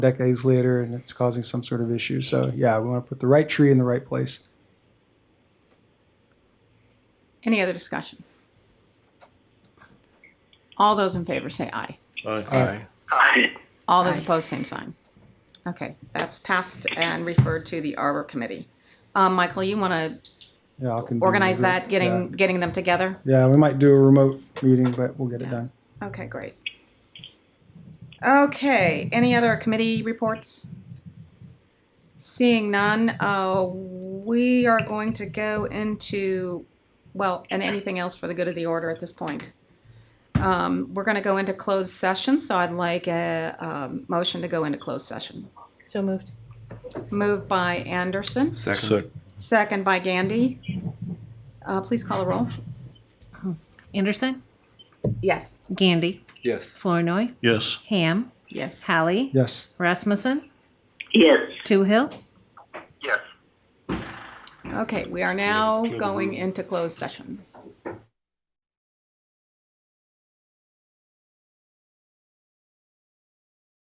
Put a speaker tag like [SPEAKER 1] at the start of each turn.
[SPEAKER 1] decades later and it's causing some sort of issue. So, yeah, we want to put the right tree in the right place.
[SPEAKER 2] Any other discussion? All those in favor say aye.
[SPEAKER 1] Aye.
[SPEAKER 3] Aye.
[SPEAKER 2] All those
[SPEAKER 4] Aye.
[SPEAKER 2] opposed, same sign. Okay, that's passed and referred to the Arbor Committee. Um, Michael, you want to
[SPEAKER 1] Yeah, I can do
[SPEAKER 2] organize
[SPEAKER 1] it.
[SPEAKER 2] that, getting, getting them together?
[SPEAKER 1] Yeah. Yeah, we might do a remote meeting, but we'll get it
[SPEAKER 2] Yeah.
[SPEAKER 1] done.
[SPEAKER 2] Okay, great. Okay, any other committee reports? Seeing none, uh, we are going to go into, well, and anything else for the good of the order at this point. Um, we're going to go into closed session, so I'd like a, um motion to go into closed session.
[SPEAKER 4] So moved.
[SPEAKER 2] Moved by Anderson,
[SPEAKER 3] Second.
[SPEAKER 2] second by Gandy. Uh, please call a roll.
[SPEAKER 4] Anderson,
[SPEAKER 2] Yes.
[SPEAKER 4] Gandy,
[SPEAKER 3] Yes.
[SPEAKER 4] Flournoy,
[SPEAKER 3] Yes.
[SPEAKER 4] Ham,
[SPEAKER 2] Yes.
[SPEAKER 4] Hallie,
[SPEAKER 1] Yes.
[SPEAKER 4] Rasmussen,
[SPEAKER 3] Yes.
[SPEAKER 4] Toohill.
[SPEAKER 3] Yes.
[SPEAKER 2] Okay, we are now
[SPEAKER 3] Clear the
[SPEAKER 2] going
[SPEAKER 3] room.
[SPEAKER 2] into closed session.